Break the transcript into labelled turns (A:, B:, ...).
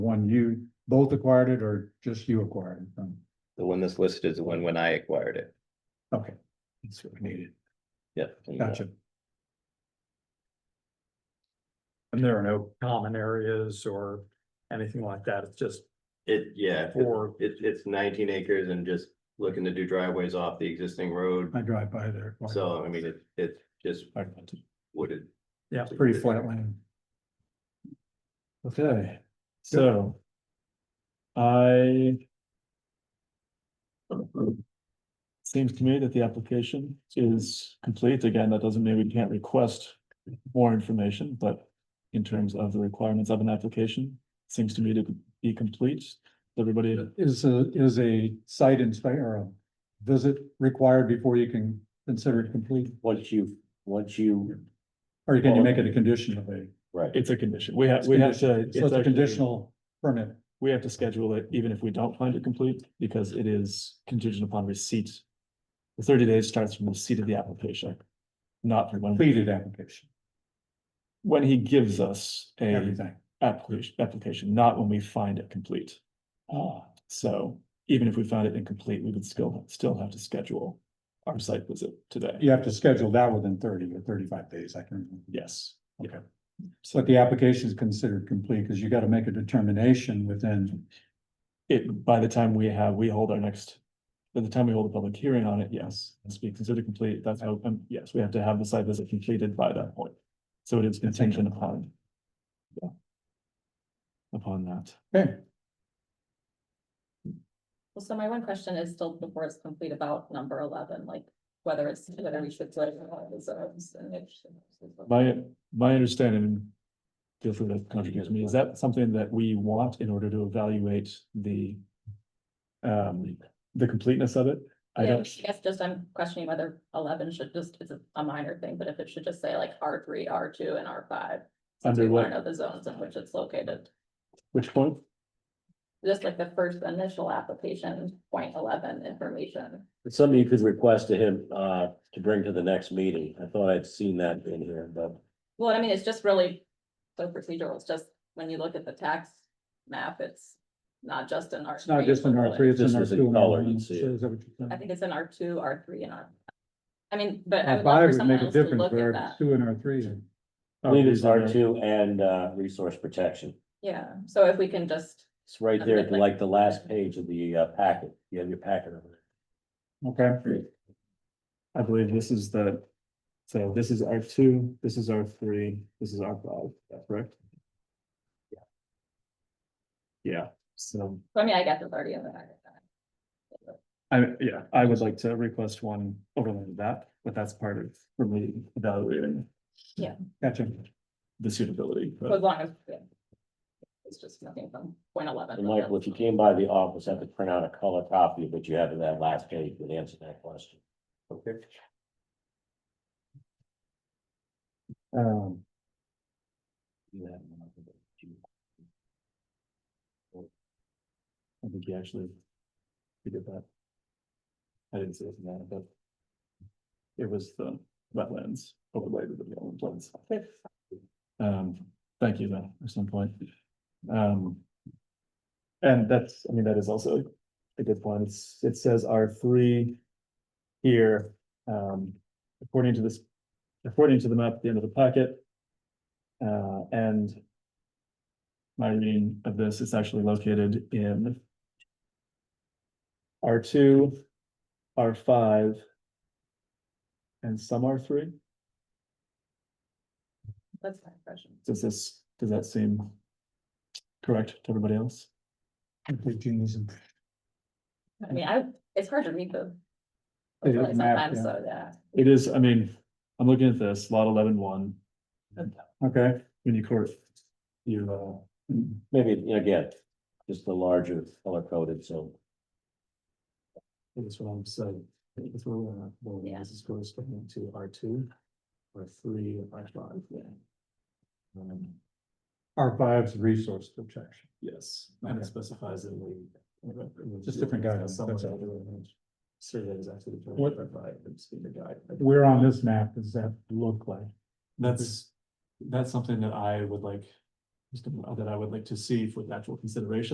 A: One you both acquired it or just you acquired it? Um,
B: The one that's listed is the one when I acquired it.
A: Okay, that's what we needed.
B: Yeah. and, uh,
A: Gotcha.
C: And there are no common areas or anything like that. It's just
B: It, yeah,
C: for,
B: it, it's nineteen acres and just looking to do driveways off the existing road.
A: I drive by there. quite
B: So, I mean, it, it's just
A: often.
B: wooded.
C: yeah,
A: It's Pretty flat land.
D: Okay, so. I. Seems to me that the application is complete. Again, that doesn't mean we can't request more information, but. In terms of the requirements of an application, seems to me to be complete. Everybody,
A: Is a, is a site inspection or a visit required before you can consider it complete?
E: Once you, once you,
A: Or can you make it a condition of a,
E: right,
D: it's a condition. We have, we have to.
A: so it's a
D: actually-
A: conditional permit?
D: We have to schedule it even if we don't find it complete because it is contingent upon receipt. The thirty days starts from receipt of the application. Not from when.
A: completed application,
D: when he gives us a
A: everything.
D: application, application, not when we find it complete. Uh, so even if we found it incomplete, we would still, still have to schedule our site visit today.
A: You have to schedule that within thirty or thirty-five days, I can. remember.
D: Yes.
A: Okay.
D: So
A: But the application is considered complete because you got to make a determination within,
D: it, by the time we have, we hold our next, by the time we hold a public hearing on it, yes, it's being considered complete. That's how, um, yes, we have to have the site visit completed by that point. So it is contingent upon. yeah, Upon that.
A: okay,
F: Well, so my one question is still before it's complete about number eleven, like whether it's, whether we should put it in all the zones and if.
D: My, my understanding, feel free to contradict me, is that something that we want in order to evaluate the um, the completeness of it? I
F: Yeah, I
D: don't,
F: guess just I'm questioning whether eleven should just, it's a- a minor thing, but if it should just say like R three, R two and R five. Since we
D: Under
F: want to
D: what?
F: know the zones in which it's located,
D: which point?
F: just like the first initial application, point eleven information.
E: it's something you could request to him, uh, to bring to the next meeting. I thought I'd seen that in here, but.
F: Well, I mean, it's just really so procedural. It's just when you look at the tax map, it's not just in R.
A: it's not just in R three, it's in
E: This
A: R
E: is in
A: two.
E: color, you can see it.
F: I think it's in R two, R three and R. I mean, but
A: R
F: I would love
A: five
F: for
A: would
F: someone
A: make a
F: else to
A: difference,
F: look at
A: but R
F: that.
A: two and R three. are-
E: I
D: Oh,
E: believe it's R two and, uh, resource protection.
F: Yeah, so if we can just,
E: It's right there, at, like the last page of the uh, packet. You have your packet over there.
A: Okay,
D: I believe this is the, so this is R two, this is R three, this is R five, that's correct? Yeah. Yeah, so,
F: I mean, I guess it's already in the.
D: I, yeah, I would like to request one overlay of that, but that's part of, for me, evaluating
A: gotcha.
D: the suitability. but-
F: As long as. yeah. It's just nothing from point eleven.
E: And Michael, if you came by the office, have to print out a color copy of what you have in that last page would answer that question.
B: Okay.
D: Um,
E: You have one of the-
D: I think he actually. He did that. I didn't see it in that, but. It was the wetlands overlay to the wetlands. Um, thank you though, at some point. Um. And that's, I mean, that is also a good point. It's, it says R three. Here, um, according to this, according to the map at the end of the packet. Uh, and my reading of this, it's actually located in R two, R five, and some R three.
F: That's my impression.
D: Does this, does that seem correct to everybody else?
A: Okay, Jeannie's in-
F: I mean, I, it's hard to read the.
A: It is
F: overlay
A: map,
F: Sometimes,
A: yeah.
F: so yeah,
D: It is, I mean, I'm looking at this, lot eleven one,
A: Okay,
D: when you court, you, uh,
E: Maybe, you know, again, just the larger color coded, so.
D: that's what I'm saying. It's where we're at. Well,
F: Yeah.
D: This is goes to R two, R three, R five, yeah. Um,
A: R five's resource protection.
D: Yes, and
A: Okay.
D: it specifies that we.
A: Just different guidelines, that's all.
D: Survey is actually. determined
A: What-
D: by the speaker guide.
A: Where on this map does that look like?
D: That's, that's something that I would like Just a- that I would like to see for the actual consideration